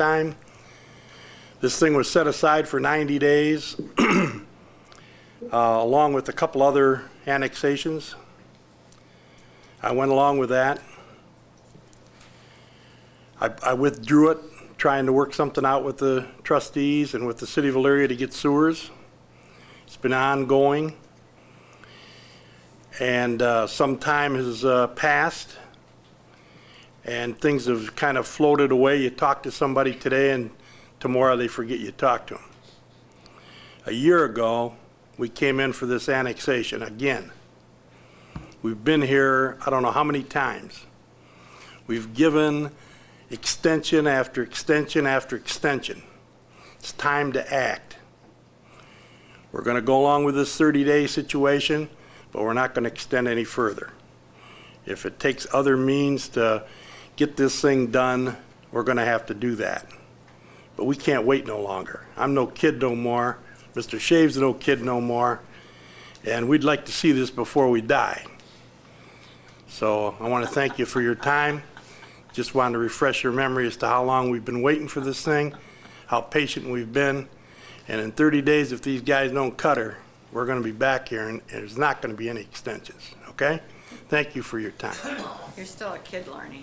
time. This thing was set aside for 90 days, uh, along with a couple other annexations. I went along with that. I I withdrew it, trying to work something out with the trustees and with the city of Elyria to get sewers. It's been ongoing. And uh, some time has uh, passed, and things have kind of floated away. You talk to somebody today, and tomorrow they forget you talked to them. A year ago, we came in for this annexation again. We've been here, I don't know how many times. We've given extension after extension after extension. It's time to act. We're going to go along with this 30-day situation, but we're not going to extend any further. If it takes other means to get this thing done, we're going to have to do that. But we can't wait no longer. I'm no kid no more. Mr. Shave's no kid no more. And we'd like to see this before we die. So I want to thank you for your time. Just wanted to refresh your memory as to how long we've been waiting for this thing, how patient we've been. And in 30 days, if these guys don't cut her, we're going to be back here and and there's not going to be any extensions, okay? Thank you for your time. You're still a kid, Larnie.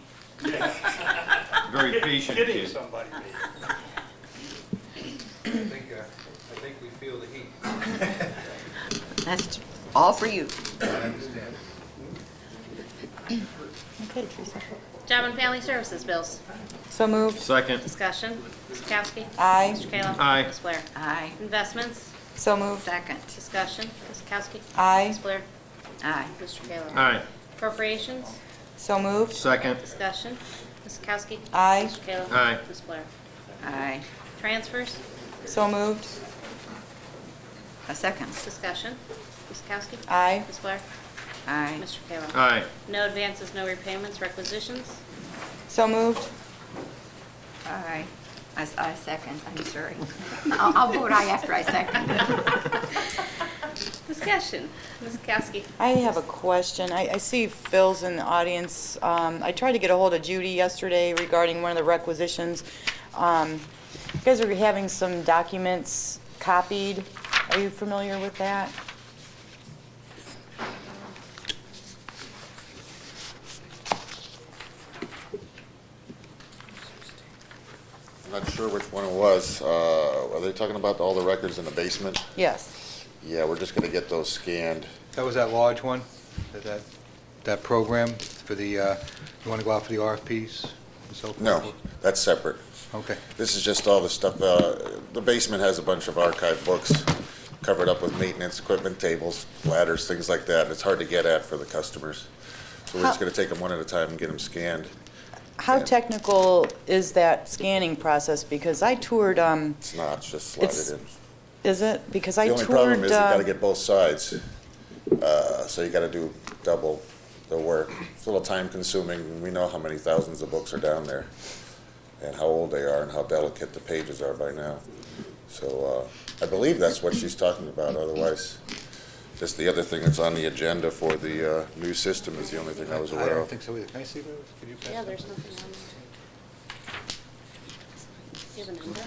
Very patient kid. somebody. I think, uh, I think we feel the heat. That's all for you. Okay, Teresa. Job and Family Services bills. So moved. Second, Discussion. Ms. Kowski. Aye. Mr. Kayla. Aye. Ms. Blair. Aye. Investments. So moved. Second. Discussion. Ms. Kowski. Aye. Ms. Blair. Aye. Mr. Kayla. aye. Appropriations. So moved. Second, Discussion. Ms. Kowski. Aye. Mr. Kayla. Aye. Ms. Blair. Aye. Transfers. So moved. A second. Discussion. Ms. Kowski. Aye. Ms. Blair. Aye. Mr. Kayla. aye. No advances, no repayments, requisitions. So moved. Aye. I, s- I second, I'm sorry. I'll, I'll vote aye after I second. Discussion. Ms. Kowski. I have a question. I, I see Phil's in the audience. Um, I tried to get a hold of Judy yesterday regarding one of the requisitions. Um, you guys are having some documents copied. Are you familiar with that? I'm not sure which one it was. Uh, Are they talking about all the records in the basement? Yes. Yeah, we're just going to get those scanned. That was that large one, that- that, that program for the, uh, you want to go out for the RFPs and so forth? No, that's separate. Okay. This is just all the stuff, uh, the basement has a bunch of archived books covered up with maintenance equipment, tables, ladders, things like that. It's hard to get at for the customers. So we're just How- going to take them one at a time and get them scanned. How technical is that scanning process? Because I toured, um, It's not, it's just slide It's- it in. is it? Because I The toured. only problem is you uh, gotta get both sides, uh, so you gotta do double the work. It's a little time consuming, and we know how many thousands of books are down there, and how old they are, and how delicate the pages are by now. So, uh, I believe that's what she's talking about, otherwise, just the other thing that's on the agenda for the, uh, new system is the only thing I was I aware don't of. think so either. Can I see those? Could you pass Yeah, that? there's nothing on there. Do you have a number?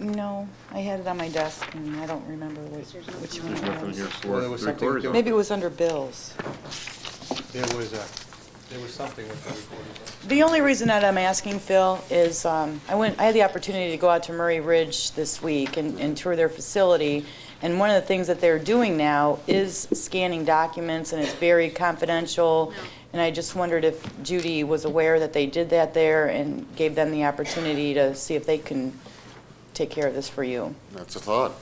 No, I had it on my desk, and I don't remember which which one it was. Well, there was something, there Maybe it was under bills. there was, uh, there was something with the recording. The only reason that I'm asking, Phil, is um, I went, I had the opportunity to go out to Murray Ridge this week and and tour their facility, and one of the things that they're doing now is scanning documents, and it's very confidential, and I just wondered if Judy was aware that they did that there and gave them the opportunity to see if they can take care of this for you. That's a thought.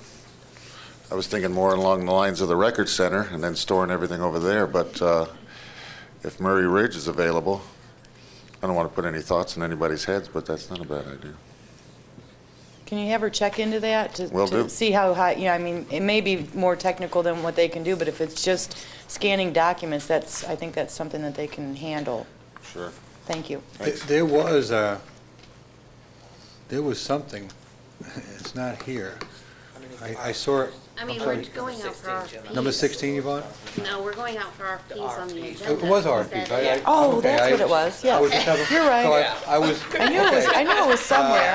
I was thinking more along the lines of the record center and then storing everything over there, but uh, if Murray Ridge is available, I don't want to put any thoughts in anybody's heads, but that's not a bad idea. Can you have her check into that? to- Will to do. See how high, you know, I mean, it may be more technical than what they can do, but if it's just scanning documents, that's, I think that's something that they can handle. Sure. Thank you. Thanks. There was, uh, there was something, it's not here, I I saw it, I I'm mean, sorry. we're going out for RFPs. number 16, Yvonne? No, we're going out for RFPs on the agenda. It was Is RFPs. that I- I- Oh, okay, that's I- what it was, I yes. just having- You're right. so I- I was. I knew it was, I knew it was somewhere.